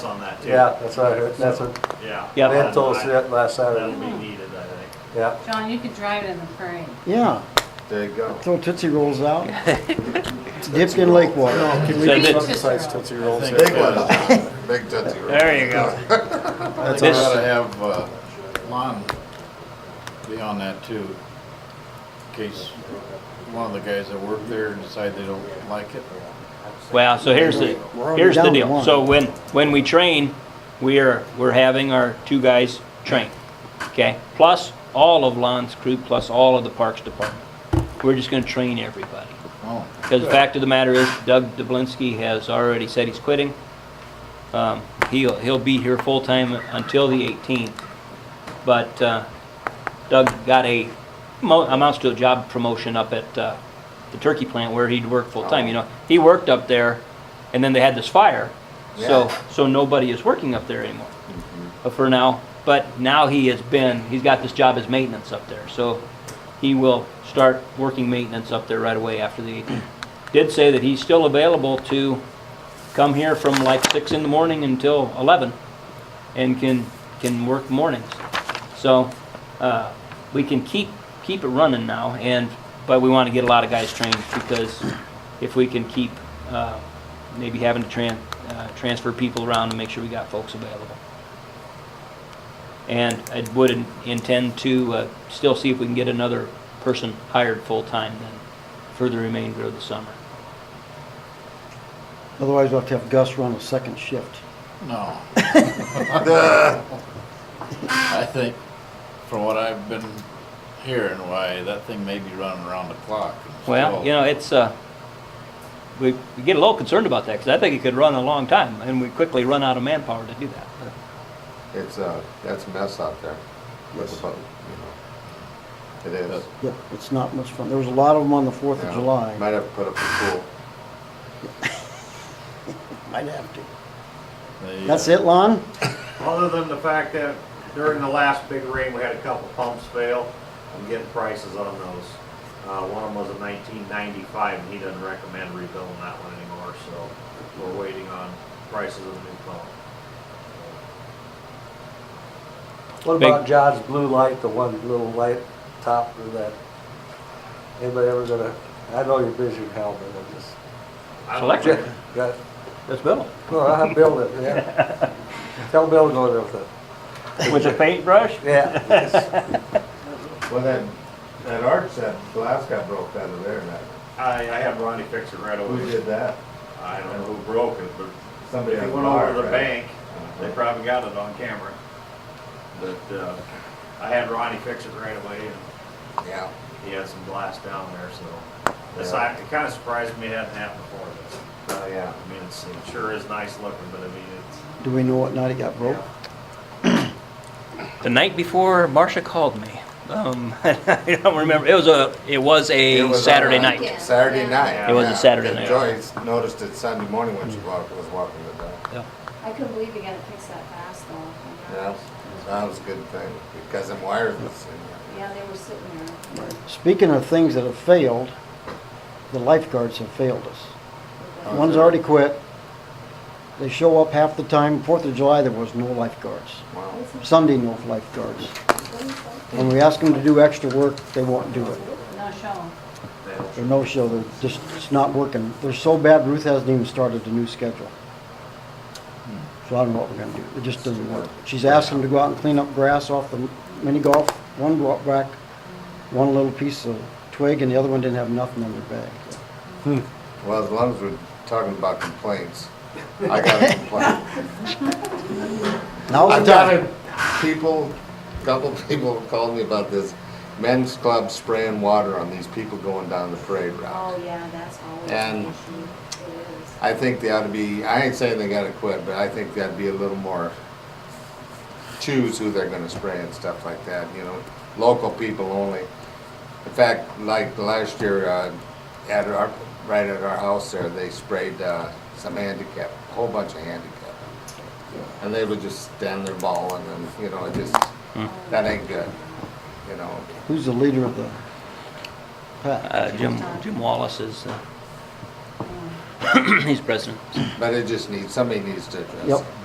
on that too. Yeah, that's what I heard, that's what Yeah. Yeah. Lynn told us That'll that last Saturday, be needed, I think. yeah. John, you could drive it in the parade. Yeah, There you go. throw Tootsie Rolls out, dipped in lake water. Can we So do did- something besides Tootsie Rolls? Big one, big Tootsie Roll. There you go. That's This- gotta have uh, Lon be on that too, in case one of the guys that work there decide they don't like it. Well, so here's the, We're already here's the down to deal. one. So when, when we train, we are, we're having our two guys train, okay? Plus all of Lon's crew, plus all of the Parks Department. We're just gonna train everybody. Oh, Because the fact of the matter is Doug Dublinsky has already said he's quitting. Um, He'll, he'll be here full-time until the 18th. But uh, Doug got a, mo- amounts to a job promotion up at uh, the turkey plant where he'd worked full-time, you know? He worked up there, and then they had this fire. So, Yeah. so nobody is working up there anymore uh, for now. But now he has been, he's got this job as maintenance up there. So he will start working maintenance up there right away after the 18th. Did say that he's still available to come here from like 6 in the morning until 11 and can, can work mornings. So uh, we can keep, keep it running now and, but we want to get a lot of guys trained because if we can keep uh, maybe having to tran, uh, transfer people around to make sure we got folks available. And I would in- intend to uh, still see if we can get another person hired full-time then for the remainder of the summer. Otherwise, we'll have to have Gus run a second shift. no. I think, from what I've been hearing, why, that thing may be running around the clock. and Well, still- you know, it's, uh, we we get a little concerned about that because I think it could run a long time and we quickly run out of manpower to do that. It's, uh, that's a mess out there with the boat, you know. It is. Yeah, it's not much fun. There was a lot of them on the Fourth of Yeah. July. Might have to put up a pool. Might have to. They, uh, That's it, Lon? Other than the fact that during the last big rain, we had a couple pumps fail. I'm getting prices on those. Uh, one of them was a nineteen ninety-five and he doesn't recommend rebuilding that one anymore, so we're waiting on prices of the new pump. What Big- about John's blue light, the one little light top of that? Anybody ever gonna, I know you're busy with Hal, but I just, I don't Select it. think- got, That's Bill. no, I'll have Bill in, yeah. Tell Bill to go there with it, With a paintbrush? yeah. Well, that, that arch, that glass got broke out of there, and that, I, I had Ronnie fix it right who away. did that? I don't know who broke it, but Somebody If on it the went over bar, to the right? bank, Uh-huh. they probably got it on camera. But, uh, I had Ronnie fix it right away and Yeah. he had some glass down there, so. It's like, it kinda surprised me it hadn't happened before, but, Oh, yeah. I mean, it's, it sure is nice looking, but I mean, it's. Do we know what night it got broke? The night before, Marcia called me. Um, I don't remember. It was a, it was It a was Saturday on, uh, night. Saturday night. It was a yeah. Saturday And night. Joyce noticed it Sunday morning when she walked, was walking the dog. I couldn't believe you got it fixed that fast though. I'm Yeah, not- that was a good thing, because them wires was in Yeah, they were sitting there. Speaking of things that have failed, the lifeguards have failed us. One's already quit. They show up half the time. Fourth of July, there was no lifeguards. there. Wow. Sunday, no lifeguards. When we ask them to do extra work, they won't do it. No show. They're no-show, they're just, it's not working. They're so bad, Ruth hasn't even started the new schedule. So I don't know what we're gonna do, it just doesn't work. She's asked them to go out and clean up grass off the mini golf, one brought back one little piece of twig, and the other one didn't have nothing in their bag. Well, as long as we're talking about complaints, I got a complaint. Now's I've the got time. a people, couple people called me about this men's club spraying water on these people going down the parade route. Oh, yeah, that's always And- an issue. It is. I think they ought to be, I ain't saying they gotta quit, but I think that'd be a little more choose who they're gonna spray and stuff like that, you know, local people only. In fact, like last year, uh, at our, right at our house there, they sprayed, uh, some handicap, a whole bunch of handicap. And they would just stand there bawling and, you know, it just, that ain't good, you know. Who's the leader of the pack? Uh, Jim, Jim Wallace is, uh, he's president. But it just needs, somebody needs to address it. Yep.